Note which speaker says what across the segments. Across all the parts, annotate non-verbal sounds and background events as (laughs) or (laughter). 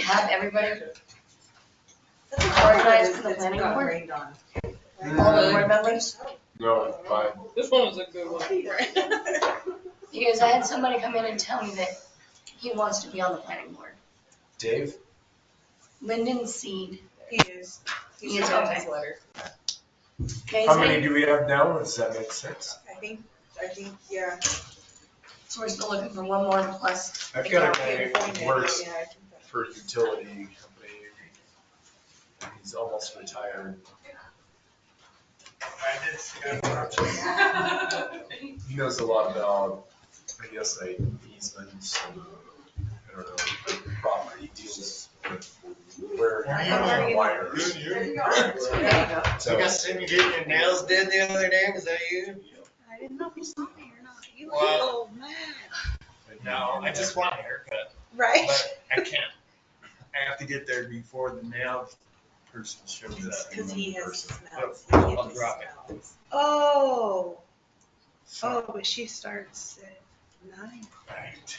Speaker 1: have everybody,
Speaker 2: That's a
Speaker 1: Organized for the
Speaker 2: couple of those that
Speaker 1: planning
Speaker 2: got
Speaker 1: board?
Speaker 2: rained on.
Speaker 1: all the board members.
Speaker 3: No, fine.
Speaker 4: This one was a good one.
Speaker 1: Because I had somebody come in and tell me that he wants to be on the planning board.
Speaker 5: Dave?
Speaker 1: Lyndon Seed.
Speaker 2: He is,
Speaker 1: He
Speaker 2: he's
Speaker 1: is
Speaker 2: on
Speaker 1: okay.
Speaker 2: his letter.
Speaker 1: Guys,
Speaker 5: How many do we have now? Does that make sense?
Speaker 2: I think, I think, yeah.
Speaker 1: So we're still looking for one more plus.
Speaker 5: I've got a guy
Speaker 2: Yeah,
Speaker 5: who works
Speaker 2: yeah, I think that-
Speaker 5: for a utility company. He's almost retired. He knows a lot about, I guess, like easements and, I don't know, property deals with where wires.
Speaker 2: There you go.
Speaker 5: So
Speaker 6: seen you getting your nails did the other day, was that you?
Speaker 7: I didn't know if you saw me or not. You
Speaker 6: Wow.
Speaker 7: little man.
Speaker 6: No, I just want a haircut,
Speaker 7: Right?
Speaker 6: but I can't. I have to get there before the nail person shows up.
Speaker 2: Cause he has smells.
Speaker 6: I'll
Speaker 2: He has
Speaker 6: drop it.
Speaker 2: smells.
Speaker 7: Oh, oh, but she starts at nine.
Speaker 6: Right.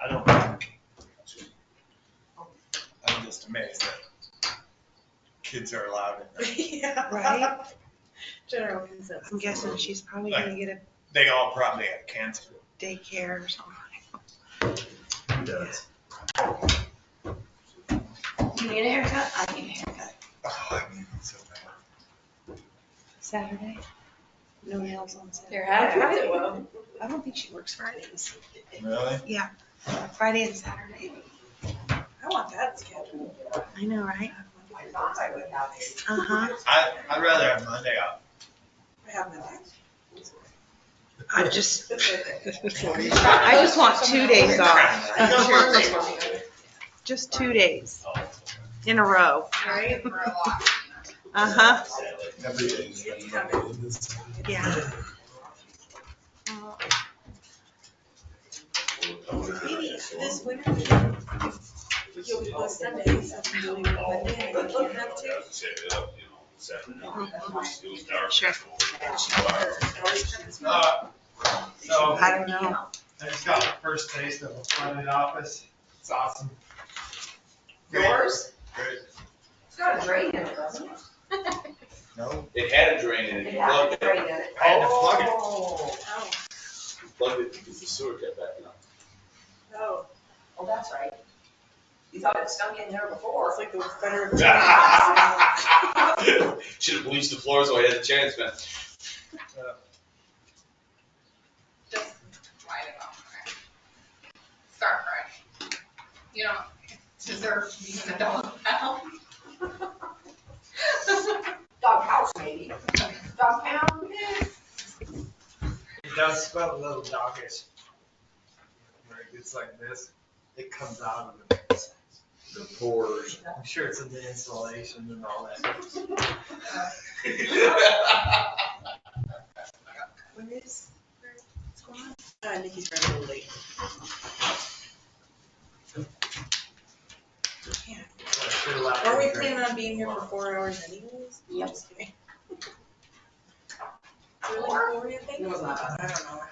Speaker 6: I don't. I'm just amazed that kids are allowed in there.
Speaker 2: (laughs) Yeah.
Speaker 7: Right?
Speaker 2: General consensus.
Speaker 7: I'm guessing she's probably gonna get a
Speaker 6: They all probably have cancer.
Speaker 7: daycare or something.
Speaker 5: he does.
Speaker 1: You need a haircut? I need a haircut.
Speaker 6: Oh, I mean, it's so bad.
Speaker 7: Saturday. No nails on Saturday.
Speaker 4: Your hat,
Speaker 2: I did well.
Speaker 7: I don't think she works Fridays.
Speaker 6: Really?
Speaker 7: Friday and Saturday.
Speaker 2: I want that schedule.
Speaker 7: I know, right?
Speaker 2: I thought I would have
Speaker 6: (laughs)
Speaker 2: it.
Speaker 7: Uh huh.
Speaker 6: I, I'd rather have Monday off.
Speaker 2: I have my back.
Speaker 7: I just, I
Speaker 6: I
Speaker 7: just want two days off.
Speaker 2: Right?
Speaker 7: Just two days in a row. Uh
Speaker 6: (laughs)
Speaker 7: huh.
Speaker 5: Every day is like Monday. This-
Speaker 7: Yeah.
Speaker 2: Maybe this winter, if you'll do a Sunday, since I'm doing it Monday, I can't have two.
Speaker 6: Uh, So
Speaker 7: I don't know.
Speaker 6: I just got my first taste of a flooded office. It's awesome.
Speaker 2: Yours?
Speaker 6: Great.
Speaker 2: It's got a drain in it, doesn't it?
Speaker 6: No.
Speaker 8: It had a drain in it, you plugged it,
Speaker 2: in it.
Speaker 6: I had to plug it.
Speaker 2: Oh, oh,
Speaker 8: you plugged it because the sewer kept backing up.
Speaker 2: oh. Well, that's right. You thought it stunk in there before. It's like the
Speaker 6: (laughs)
Speaker 2: better.
Speaker 8: (laughs) Should've bleached the floors while I had the chance, man. (laughs)
Speaker 9: just write it off. right? Start fresh. You don't deserve to be in the dog pound.
Speaker 2: (laughs) Dog house, maybe. Dog pound, yeah.
Speaker 6: It does smell a little doggish. When it gets like this, it comes out of the,
Speaker 5: The poor
Speaker 6: I'm sure it's in the insulation and all that.
Speaker 2: Where is, where- what's going on? Uh, Nikki's running a little late. Yeah. Are we planning on being here for four hours anyways?
Speaker 1: Yep.
Speaker 2: Just kidding. Really, what were you thinking? I don't know.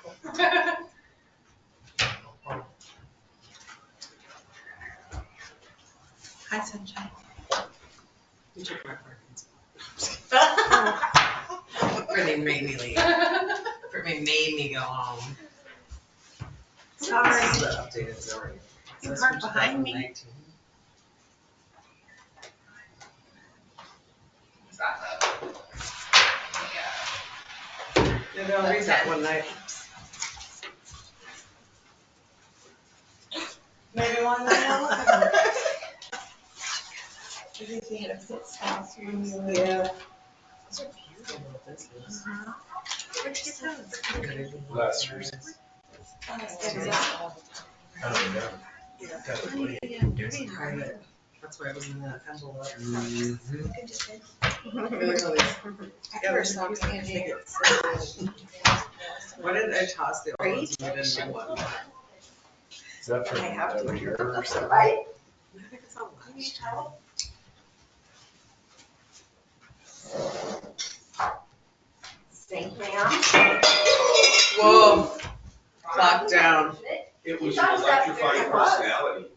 Speaker 7: Hi, sunshine.
Speaker 2: You took my parking spot. Or they made me leave, or they made me go home.
Speaker 7: Sorry.
Speaker 2: the updated story.
Speaker 7: You parked behind me.
Speaker 9: Is that the- Yeah.
Speaker 2: Yeah, they'll read that one night. Maybe one night.
Speaker 7: Uh-huh.
Speaker 2: Yeah.
Speaker 5: last year's. I don't know.
Speaker 2: Yeah.
Speaker 5: Kind of like-
Speaker 2: That's why I was in that envelope. Mm-hmm.
Speaker 5: Mhm.
Speaker 2: Ever saw tickets. Why didn't I toss the old ones? I didn't know what.
Speaker 5: Is that from
Speaker 2: I have to.
Speaker 5: another year or something?
Speaker 2: I think it's on lunch.
Speaker 1: Thank you.
Speaker 2: Whoa, Lockdown.
Speaker 8: It was your electrifying personality.